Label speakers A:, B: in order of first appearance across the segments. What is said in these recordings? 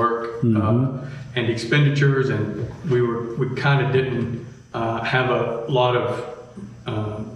A: work uh,
B: Mm-hmm.
A: and expenditures, and we were, we kind of didn't uh, have a lot of um,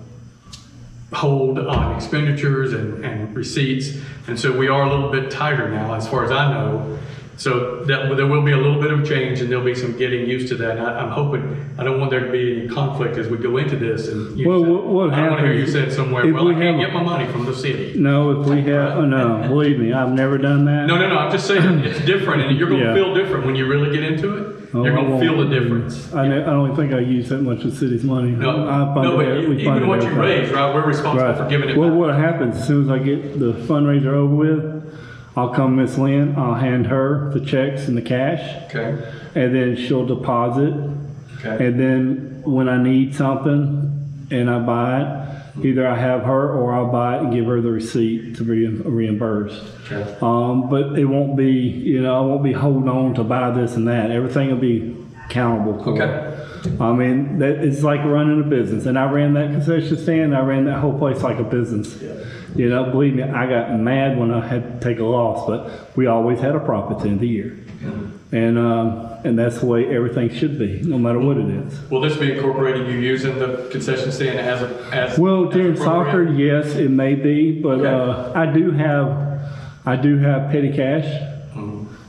A: hold on expenditures and and receipts, and so we are a little bit tighter now, as far as I know. So that, there will be a little bit of change, and there'll be some getting used to that. And I- I'm hoping, I don't want there to be any conflict as we go into this, and you
B: Well,
A: said-
B: what- what
A: I don't want to hear you
B: happens
A: said somewhere,
B: if
A: well, I
B: we
A: can't get
B: have-
A: my money from the city.
B: No, if we have, oh, no, believe me, I've never done that.
A: No, no, no. I'm just saying it's different, and you're going to
B: Yeah.
A: feel different when you really get into it.
B: Oh,
A: you're
B: I
A: going to
B: won't.
A: feel the difference.
B: I ne- I don't think I use that much of the city's money.
A: No,
B: I fund
A: no,
B: it-
A: but
B: we
A: you,
B: fund
A: even
B: it
A: what you
B: every time.
A: raise, right? We're responsible
B: Right.
A: for giving it
B: Well,
A: back.
B: what happens, as soon as I get the fundraiser over with, I'll come Miss Lynn, I'll hand her the checks and the cash,
A: Okay.
B: and then she'll deposit.
A: Okay.
B: And then when I need something and I buy
A: Mm-hmm.
B: it, either I have her or I'll buy it and give her the receipt to be reimbursed.
A: okay.
B: Um, but it won't be, you know, I won't be holding on to buy this and that. Everything will be countable. for.
A: Okay.
B: I mean, that it's like running a business, and I ran that concession stand. I ran that whole place like a business. You know, believe me, I got mad when I had to take a loss, but we always had a profit at the end of the year, and um, and that's the way everything should be, no matter what it is.
A: Will this be incorporating you using the concession stand as a as
B: Well,
A: as
B: during
A: a program?
B: soccer, yes, it may be, but uh, I do have, I do have petty cash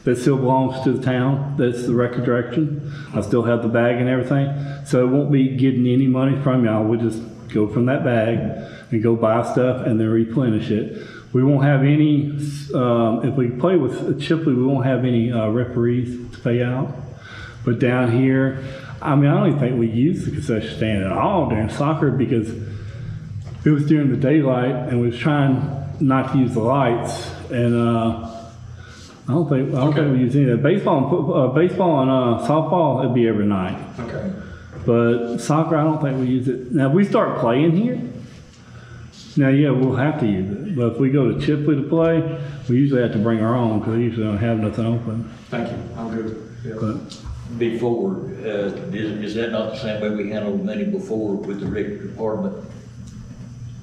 B: that still belongs to the town. That's the record direction. I still have the bag and everything, so it won't be getting any money from y'all. We'll just go from that bag and go buy stuff and then replenish it. We won't have any. Um, if we play with Chipley, we won't have any uh, referees to pay out. But down here, I mean, I don't even think we used the concession stand at all during soccer because it was during the daylight and we was trying not to use the lights. And uh, I don't think I don't
A: Okay.
B: think we used any of that. Baseball and fo- uh, baseball and uh, softball it'd be every night,
A: Okay.
B: but soccer I don't think we use it. Now if we start playing here. Now, yeah, we'll have to use it. But if we go to Chipley to play, we usually have to bring our own because they usually don't have nothing open.
A: Thank you. I'm good. Yeah.
B: But
C: Before, uh, is, is that not the same way we handled money before with the rec department?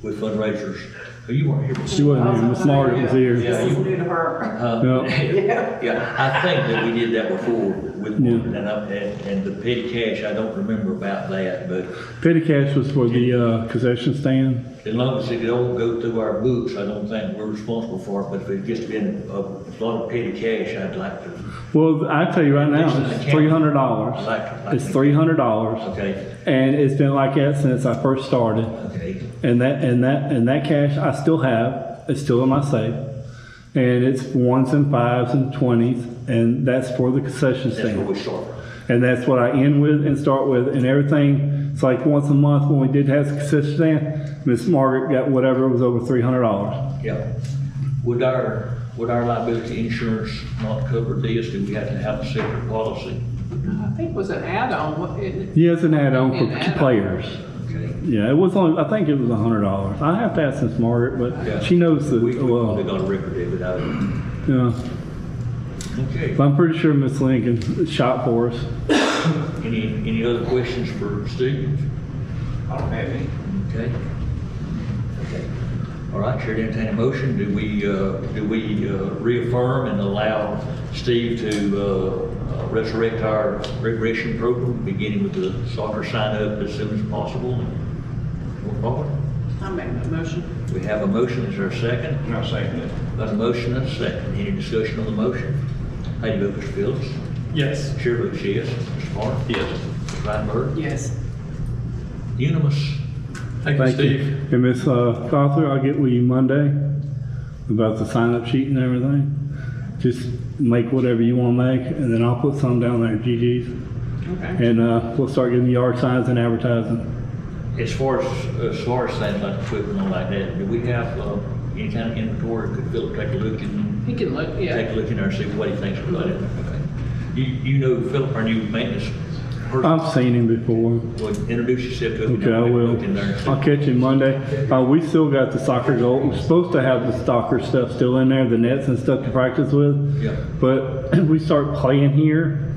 C: With fundraisers? Oh, You weren't here
B: she
C: before.
B: wasn't here. Miss Margaret was here.
C: Yeah,
D: This is
C: you-
D: new to her.
C: huh? Yeah, I think that we did that before with,
B: Yeah.
C: and, I- and and the petty cash, I don't remember about that, but
B: Petty cash was for the uh, concession stand.
C: as long as it don't go through our books, I don't think we're responsible for it, but if it's just been a lot of petty cash, I'd like to,
B: Well, I tell you right now, it's three hundred dollars. It's three hundred dollars,
C: okay,
B: and it's been like that since I first started.
C: okay.
B: And that and that and that cash I still have. It's still in my safe, and it's ones and fives and twenties, and that's for the concession
C: That's where
B: stand.
C: we start.
B: And that's what I end with and start with and everything. It's like once a month when we did have the concession stand, Miss Margaret got whatever was over three hundred dollars.
C: Yeah. Would our, would our liability insurance not cover this? Do we have to have a separate policy?
D: I think it was an add-on, wa- it-
B: Yeah, it's an add-on
D: An
B: for
D: add-on.
B: players.
C: Okay.
B: Yeah, it was only, I think it was a hundred dollars. I have to ask Miss Margaret,
C: Yeah.
B: but she knows the,
C: We, we
B: well,
C: probably got a record of it, I would.
B: yeah.
C: Okay.
B: But I'm pretty sure Miss Lincoln shot for us.
C: Any, any other questions for Steve?
E: I don't have any.
C: Okay. Okay. All right, Chair, entertain a motion. Do we, uh, do we uh, reaffirm and allow Steve to uh, resurrect our recreation program, beginning with the soccer sign-up as soon as possible? and Move forward?
D: I make that motion.
C: We have a motion, is there a second?
E: And I second it.
C: Got a motion and a second, any discussion on the motion? How do you vote, Mr. Phillips?
A: Yes.
C: Chair votes yes, Mr. Moore? Yes. Mr. Reitenberg?
D: Yes.
C: Unanimous.
A: Thank,
B: Thank
A: you, Steve.
B: you. And Miss uh, Cawthorn, I'll get with you Monday about the sign-up sheet and everything. Just make whatever you want to make, and then I'll put some down there, GG's.
D: Okay.
B: And, uh, we'll start getting yard signs and advertising.
C: As far as, as far as things like equipment and like that, do we have, uh, any kind of inventory, could Philip take a look and,
D: He can look,
C: take a
D: yeah.
C: look in there and see what he thinks about it? Okay. You, you know Philip, our new maintenance person,
B: I've seen him before.
C: Well, introduce yourself to him. and
B: Um, Okay, I
C: have a
B: will.
C: Look in there. and see.
B: I'll catch you Monday. Uh, we still got the soccer goal. We're supposed to have the soccer stuff still in there, the nets and stuff to practice with.
C: Yeah.
B: But we start playing here.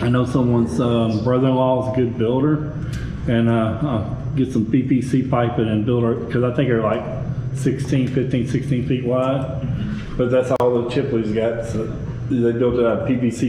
B: I know someone's um, brother-in-law is a good builder, and uh, I'll get some PVC piping and build our because I think they're like 16, 15, 16 feet wide. But that's all the Chipley's got. So they built it out of PVC